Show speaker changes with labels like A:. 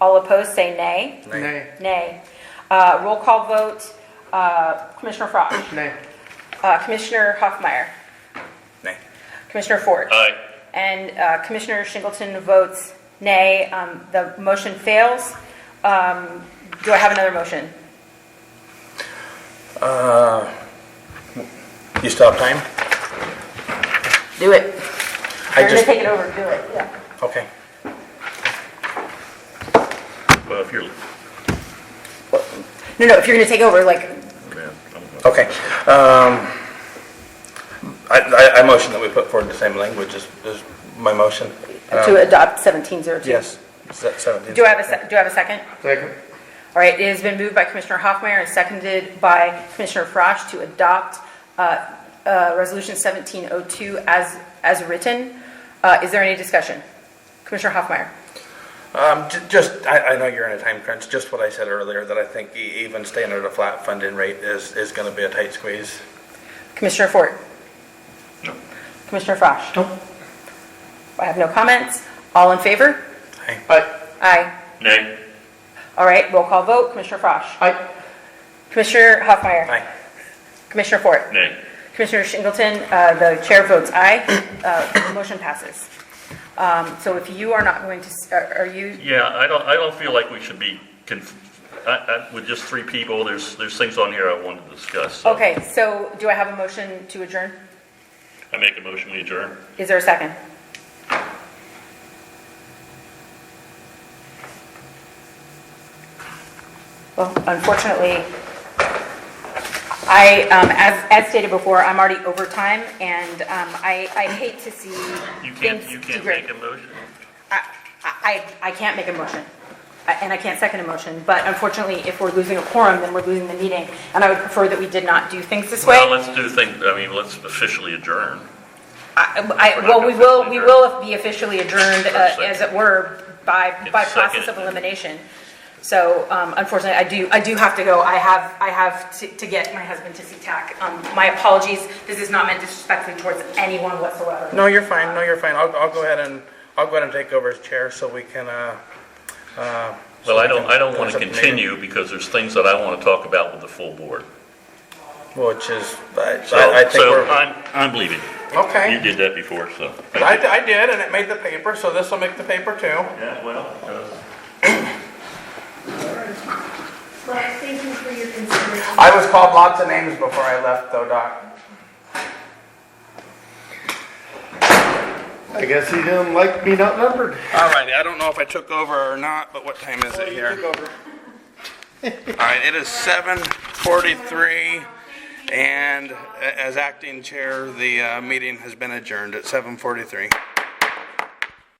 A: All opposed, say nay.
B: Nay.
A: Nay. Uh, Roll call vote, uh, Commissioner Frosch.
B: Nay.
A: Uh, Commissioner Hoffmeyer.
C: Nay.
A: Commissioner Ford.
C: Aye.
A: And uh, Commissioner Singleton votes nay. Um, The motion fails. Um, Do I have another motion?
C: You stop time?
A: Do it.
C: I
A: You're going to
C: just-
A: take it over, do it, yeah.
C: Okay.
D: Well, if you're,
A: No, no, if you're going to take over, like,
D: man, I don't know.
C: Okay. Um, I, I, I motion that we put forward the same language as, as my motion.
A: to adopt 1702.
C: Yes. Se- Seventeen.
A: Do I have a, sec- do I have a second?
B: Second.
A: All right, it has been moved by Commissioner Hoffmeyer and seconded by Commissioner Frosch to adopt uh, uh, Resolution 1702 as, as written. Uh, Is there any discussion? Commissioner Hoffmeyer?
C: Um, ju- just, I, I know you're in a time crunch, just what I said earlier, that I think e- even staying at a flat funding rate is, is gonna be a tight squeeze.
A: Commissioner Fort?
D: No.
A: Commissioner Frosch?
B: No.
A: I have no comments. All in favor?
C: Aye.
B: Aye.
A: Aye.
D: Nay.
A: All right, roll call vote. Commissioner Frosch?
B: Aye.
A: Commissioner Hoffmeyer?
C: Aye.
A: Commissioner Fort?
D: Nay.
A: Commissioner Singleton, uh, the chair votes aye. Uh, Motion passes. Um, So if you are not going to, s- are are you,
D: Yeah, I don't, I don't feel like we should be, conf- I, I, with just three people, there's, there's things on here I wanted to discuss. so.
A: okay, so do I have a motion to adjourn?
D: I make a motion, we adjourn.
A: Is there a second? Well, unfortunately, I, um, as as stated before, I'm already over time, and um, I I hate to see
D: You
A: things
D: can't, you can't
A: degrade.
D: make a motion.
A: I, I, I can't make a motion, I- and I can't second a motion, but unfortunately, if we're losing a quorum, then we're losing the meeting, and I would prefer that we did not do things this way.
D: Well, let's do things, I mean, let's officially adjourn.
A: I, I, well, we will, we will be officially adjourned, uh, as it were, by, by
D: It's second.
A: process of elimination. So, um, unfortunately, I do, I do have to go, I have, I have to, to get my husband to SeaTac. Um, my apologies, this is not meant disrespectfully towards anyone whatsoever.
C: No, you're fine, no, you're fine. I'll, I'll go ahead and, I'll go ahead and take over as chair so we can, uh, uh. so
D: Well, I
C: we
D: don't,
C: can-
D: I don't want to
C: something later.
D: continue because there's things that I want to talk about with the full board.
C: Which is, I,
D: So,
C: I I think
D: so
C: we're,
D: I'm, I'm leaving.
C: okay.
D: You did that before, so.
C: I, I did, and it made the paper, so this will make the paper too.
D: Yeah, well. uh,
E: Well, thank you for your consideration.
C: I was called lots of names before I left, though, Doc.
B: I guess he didn't like being outnumbered.
C: All righty, I don't know if I took over or not, but what time is it here? All right, it is 7:43, and a- as acting chair, the uh, meeting has been adjourned at 7:43.